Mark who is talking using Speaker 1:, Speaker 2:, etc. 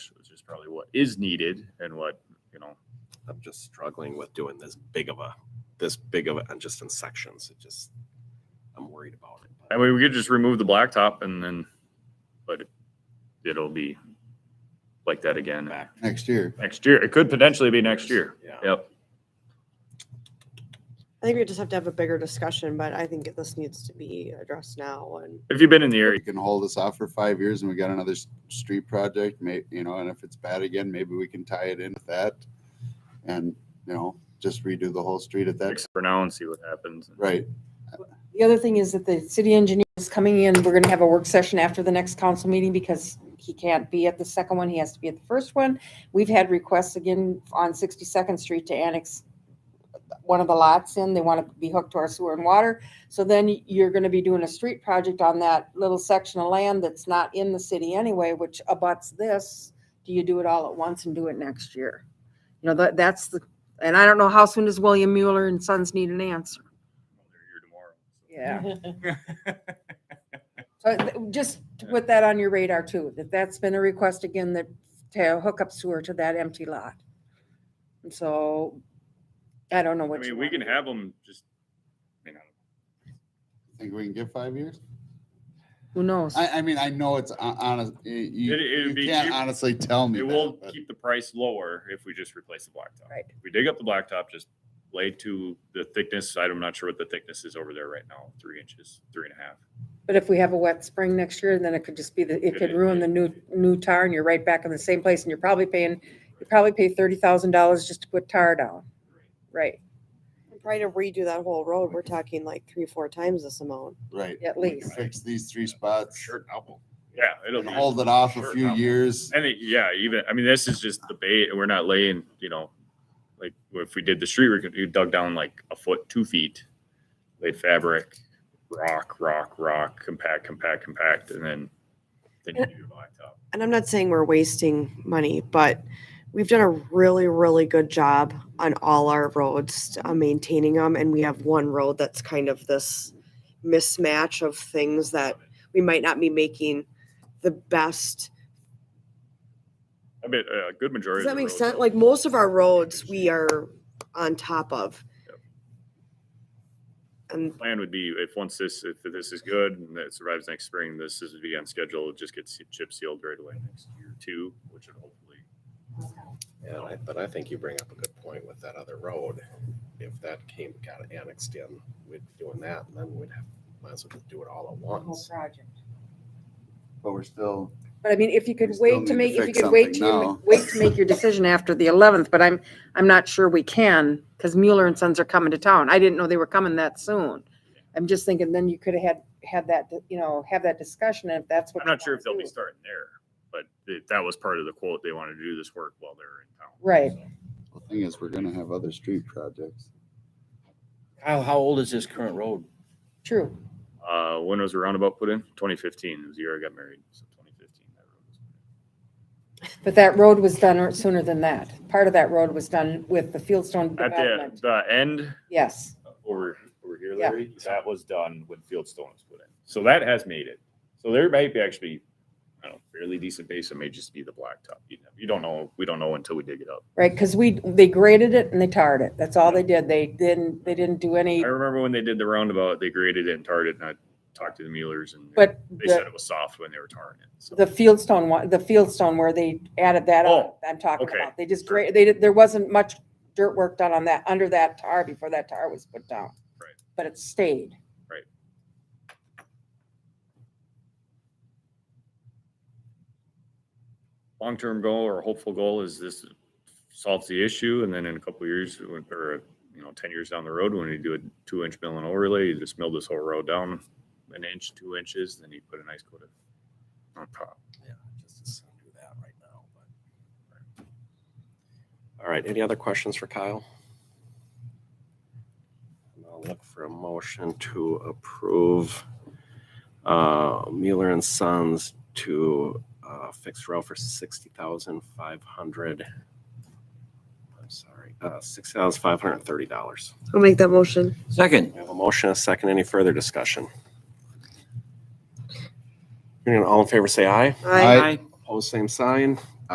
Speaker 1: probably what is needed and what, you know,
Speaker 2: I'm just struggling with doing this big of a, this big of a, and just in sections. It just, I'm worried about it.
Speaker 1: I mean, we could just remove the blacktop and then, but it'll be like that again
Speaker 2: Back
Speaker 3: next year.
Speaker 1: next year. It could potentially be next year.
Speaker 2: Yeah.
Speaker 1: Yep.
Speaker 4: I think we just have to have a bigger discussion, but I think this needs to be addressed now and
Speaker 1: If you've been in the area,
Speaker 3: We can hold this off for five years and we got another s- street project, may, you know, and if it's bad again, maybe we can tie it in with that. And, you know, just redo the whole street at that,
Speaker 1: fix it for now and see what happens.
Speaker 3: right?
Speaker 5: The other thing is that the city engineer is coming in. We're gonna have a work session after the next council meeting because he can't be at the second one. He has to be at the first one. We've had requests again on Sixty-second Street to annex one of the lots in. They want to be hooked to our sewer and water. So then you're gonna be doing a street project on that little section of land that's not in the city anyway, which abuts this. Do you do it all at once and do it next year? You know, that, that's the, and I don't know how soon does William Mueller and Sons need an answer? Yeah. So th- just to put that on your radar too, that that's been a request again that to hook up sewer to that empty lot. And so I don't know
Speaker 1: I
Speaker 5: what. you
Speaker 1: mean, we
Speaker 5: wanna
Speaker 1: can
Speaker 5: do.
Speaker 1: have them just, you know,
Speaker 3: Think we can get five years?
Speaker 5: Who knows?
Speaker 3: I, I mean, I know it's hon- honest, you, you-
Speaker 1: It- it'd
Speaker 3: you
Speaker 1: be
Speaker 3: can't
Speaker 1: cheap-
Speaker 3: honestly tell me
Speaker 1: it
Speaker 3: that,
Speaker 1: will
Speaker 3: but
Speaker 1: keep the price lower if we just replace the blacktop.
Speaker 5: Right.
Speaker 1: If we dig up the blacktop, just lay to the thickness. I'm not sure what the thickness is over there right now, three inches, three and a half.
Speaker 5: But if we have a wet spring next year, then it could just be the, it could ruin the new, new tar and you're right back in the same place and you're probably paying, you probably pay thirty thousand dollars just to put tar down. Right,
Speaker 4: probably to redo that whole road. We're talking like three, four times this amount.
Speaker 3: right.
Speaker 5: at
Speaker 3: we can
Speaker 5: least.
Speaker 3: Fix these three spots
Speaker 2: Sure, double.
Speaker 1: Yeah, it'll
Speaker 3: and
Speaker 1: be.
Speaker 3: hold it off a
Speaker 1: Sure,
Speaker 3: few
Speaker 1: double.
Speaker 3: years.
Speaker 1: And it- yeah, even, I mean, this is just the bait and we're not laying, you know, like if we did the street, we could, you dug down like a foot, two feet, laid fabric, rock, rock, rock, compact, compact, compact, and then, then you do your blacktop.
Speaker 4: And I'm not saying we're wasting money, but we've done a really, really good job on all our roads, uh, maintaining them. And we have one road that's kind of this mismatch of things that we might not be making the best
Speaker 1: I bet a good majority. of
Speaker 4: Does that
Speaker 1: the
Speaker 4: make
Speaker 1: roads
Speaker 4: sense?
Speaker 1: are-
Speaker 4: Like most of our roads, we are on top of.
Speaker 1: Yep.
Speaker 4: And
Speaker 1: Plan would be if once this, if this is good and it survives next spring, this is be on schedule, it just gets chip sealed right away next year too, which would hopefully.
Speaker 2: Yeah, I- but I think you bring up a good point with that other road. If that came, got annexed in, we'd be doing that, and then we'd have, might as well just do it all at once.
Speaker 3: But we're still,
Speaker 5: But I mean, if you
Speaker 3: We
Speaker 5: could
Speaker 3: still
Speaker 5: wait
Speaker 3: need
Speaker 5: to
Speaker 3: to
Speaker 5: make, if you
Speaker 3: fix
Speaker 5: could wait
Speaker 3: something now.
Speaker 5: to, wait to make your decision after the eleventh, but I'm, I'm not sure we can, because Mueller and Sons are coming to town. I didn't know they were coming that soon. I'm just thinking then you could have had, had that, you know, have that discussion if that's what.
Speaker 1: I'm
Speaker 5: you
Speaker 1: not sure
Speaker 5: wanna
Speaker 1: if they'll be
Speaker 5: do.
Speaker 1: starting there, but th- that was part of the quote. They wanted to do this work while they're in town.
Speaker 5: Right.
Speaker 1: So,
Speaker 3: the thing is, we're gonna have other street projects.
Speaker 6: Kyle, how old is this current road?
Speaker 5: True.
Speaker 1: Uh, when was the roundabout put in? Twenty fifteen. It was the year I got married. So twenty fifteen. that road was
Speaker 5: But that road was done sooner than that. Part of that road was done with the Fieldstone
Speaker 1: At the,
Speaker 5: development.
Speaker 1: the end uh,
Speaker 5: Yes.
Speaker 1: over, over here,
Speaker 5: Yeah.
Speaker 1: Larry, that was done when Fieldstone was put in. So that has made it. So there might be actually, I don't know, fairly decent base. It may just be the blacktop. You know, you don't know. We don't know until we dig it up.
Speaker 5: Right, because we, they graded it and they tarred it. That's all they did. They didn't, they didn't do
Speaker 1: I
Speaker 5: any,
Speaker 1: remember when they did the roundabout, they graded it and tarred it and I talked to the Muellers and
Speaker 5: but
Speaker 1: they
Speaker 5: the-
Speaker 1: said it was soft when they were tarring it. So.
Speaker 5: The Fieldstone one, the Fieldstone where they added that on,
Speaker 1: Oh,
Speaker 5: I'm talking
Speaker 1: okay.
Speaker 5: about. They just, gra- they, did- there wasn't much dirt work done on that, under that tar before that tar was put down.
Speaker 1: Right.
Speaker 5: But it stayed.
Speaker 1: Right. long-term goal or hopeful goal is this solves the issue and then in a couple of years when- or, you know, ten years down the road, when you do a two-inch mill and overlay, you just mill this whole road down an inch, two inches, then you put a nice coat of uh, on top.
Speaker 2: Yeah, just as soon do that right now, but. All right, any other questions for Kyle? And I'll look for a motion to approve uh, Mueller and Sons to uh, fix row for sixty thousand five hundred. I'm sorry, uh, six thousand five hundred and thirty dollars.
Speaker 4: I'll make that motion.
Speaker 6: Second.
Speaker 2: We have a motion, a second, any further discussion? Hearing none, all in favor, say aye.
Speaker 4: I
Speaker 2: Opposed, same sign.